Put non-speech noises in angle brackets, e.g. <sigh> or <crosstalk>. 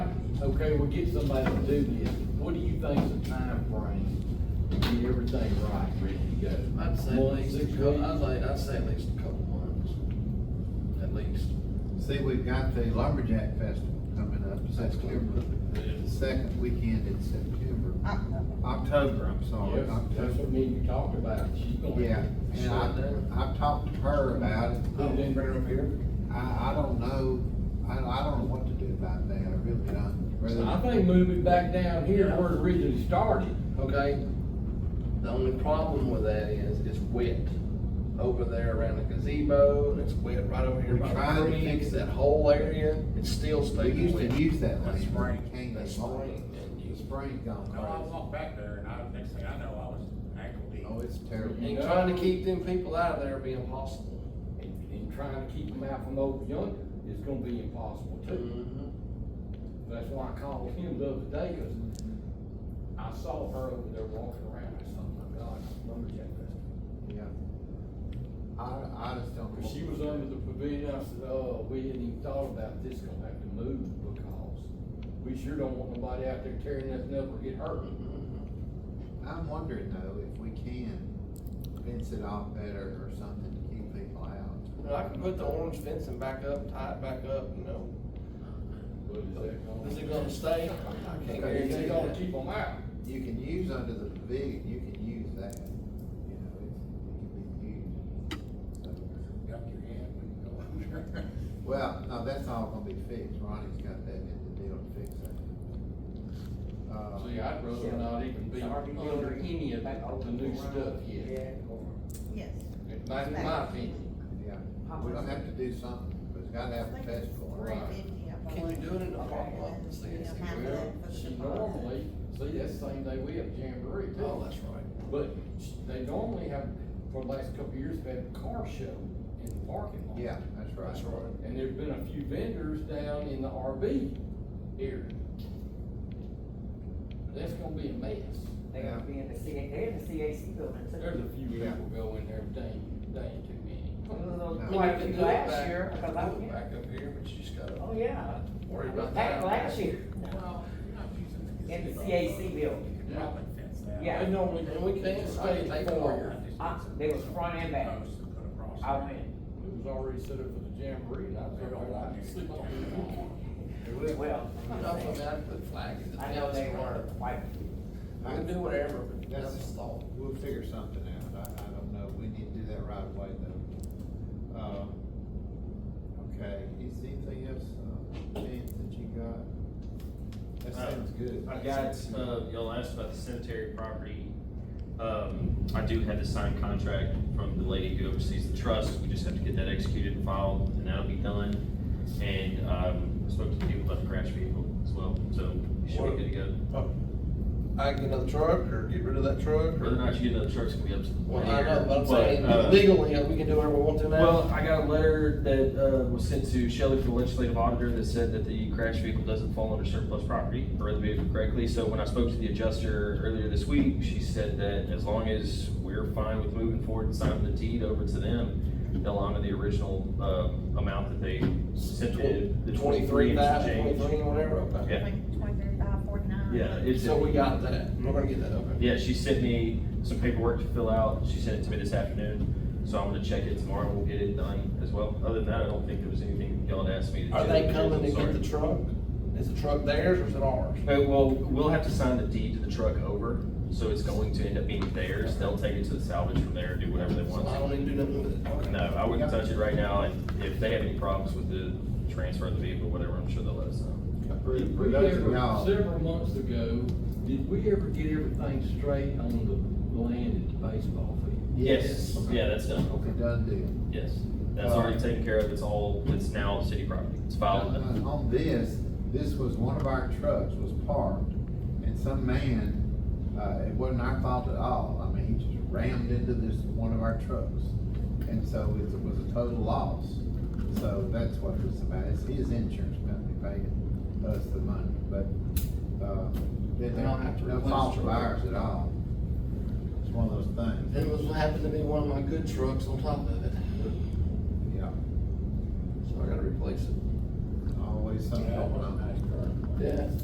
okay, we'll get somebody to do this, what do you think's the timeframe to get everything right, ready to go? I'd say at Month, least, six a cou- I'd weeks? like, I'd say at least a couple months, at least. See, we've got the Lumberjack Festival coming up September, the second weekend in September, October, I'm sorry, Yes, that's October. what me and you talked about, she's gonna. Yeah, and I, I've talked to her about it. Put it in right up here. I, I don't know, I, I don't know what to do about that, I really don't. So I Whether- think move it back down here where it originally started, Okay, the only problem with that is, it's wet over there around the gazebo, and it's wet right over here We by tried the to creek, fix that whole area, it's still They staying used wet. to use that That's land. spring, Came that's along. spring, and The you, spring gone No, I crazy. walked back there and I, next thing I know, I was ankle deep. Oh, it's terrible. You and know. trying to keep them people out of there would be impossible. and, and trying to keep them out from over yonder, it's gonna be impossible too. That's why I called him the other day, cause I saw her over there walking around, I said, oh my God, lumberjack festival. Yeah. I, I just don't. Cause she was under the pavilion, I said, oh, we hadn't even thought about this, gonna have to move because we sure don't want nobody out there tearing nothing up or get hurt. I'm wondering though, if we can fence it off better or something to keep people out. You know, I can put the orange fencing back up, tie it back up, you know, But is that Oh, gonna? is it gonna stay? I can't guarantee They gonna that. keep them out. You can use under the pavilion, you can use that, you know, it's, it can be used. So, Got your hand when you go over <laughs> there. Well, no, that's all gonna be fixed, Ronnie's got that in the deal to fix that. Uh, See, I'd rather not even be under any of the new stuff yet, Yes. that's my opinion. yeah, we're gonna have to do something, but it's gotta have a festival, Three right? fifty, I Can you believe. do it in the parking lot? And, See, you know, it's- half of Well, that for the she deposit. normally, see, that's the same day we have jamboree Oh, too, that's right. but sh- they normally have, for the last couple of years, they've had a car show in the parking lot. Yeah, that's right. That's right. And there've been a few vendors down in the RV area. That's gonna be a mess. They're gonna be in the CA, they're in the CAC building There's too. a few Yeah. people go in there, day, day too many. Those I I mean, mean, are you Quite a can few do it last back- year, you can cause do I, it Back up here, but you just gotta oh yeah. worry I about that. was Back last year, No, you're not using the. In the gazebo. CAC building. You could probably fence that. Yeah. They normally, and we can't stay They at go four. over. I, they was front and back, Posts to put across I there. went, It was already set up for the jamboree, and I was They don't want you to like, do that. well, I know, I mean, I put flag in the I know fence they or were white. I can do whatever, but that's That's- just thought. We'll figure something out, I, I don't know, we need to do that right away though. Um, okay, is anything else, uh, James, that you got? That Uh, sounds good. I got, uh, y'all asked about the cemetery property. Um, I do have the signed contract from the lady who oversees the trust, we just have to get that executed and filed, and that'll be done. And, um, I spoke to the people about the crash vehicle as well, so we should be good to go. I get another truck or get rid of that truck Whether or not you get another truck's gonna be up to the board Well, I know, but I'm here, but, saying uh, legally, we can do whatever we want to now. Well, I got a letter that, uh, was sent to Shelley from the legislative auditor that said that the crash vehicle doesn't fall under surplus property, if I read the vehicle correctly, so when I spoke to the adjuster earlier this week, she said that as long as we're fine with moving forward and signing the deed over to them, they'll honor the original, uh, amount that they sent to the twenty-three Twenty-three, and some five, change. twenty-three, whatever, okay. Yeah. Like Twenty-three, five, forty-nine. Yeah, it's. So we got that, we're gonna get that over. Yeah, she sent me some paperwork to fill out, she sent it to me this afternoon, so I'm gonna check it tomorrow, we'll get it done as well. Other than that, I don't think there was anything y'all had asked me to do. Are they I'm coming to get sorry. the truck? Is the truck theirs or is it ours? Uh, well, we'll have to sign the deed to the truck over, so it's going to end up being theirs, they'll take it to the salvage from there and do whatever they So I want. don't need to do nothing with it. No, I wouldn't touch it right now, and if they have any problems with the transfer of the vehicle, whatever, I'm sure they'll let us know. For, Did for we those of ever- y'all, Several months ago, did we ever get everything straight on the land at the baseball field? Yes, yeah, that's done, okay, done deal. yes, that's already taken care of, it's all, it's now city property, it's filed. Uh, On this, this was one of our trucks was parked, and some man, uh, it wasn't our fault at all, I mean, he just rammed into this, one of our trucks. And so it was a total loss, so that's what it was about, it's his insurance company paying us the money, but, uh, it- They don't have to no replace fault the of truck. ours at all. It's one of those things, It was, happened to be one of my good trucks on top of it, yeah, so I gotta replace it. always something Yeah, it going was a on. nice car. Yeah.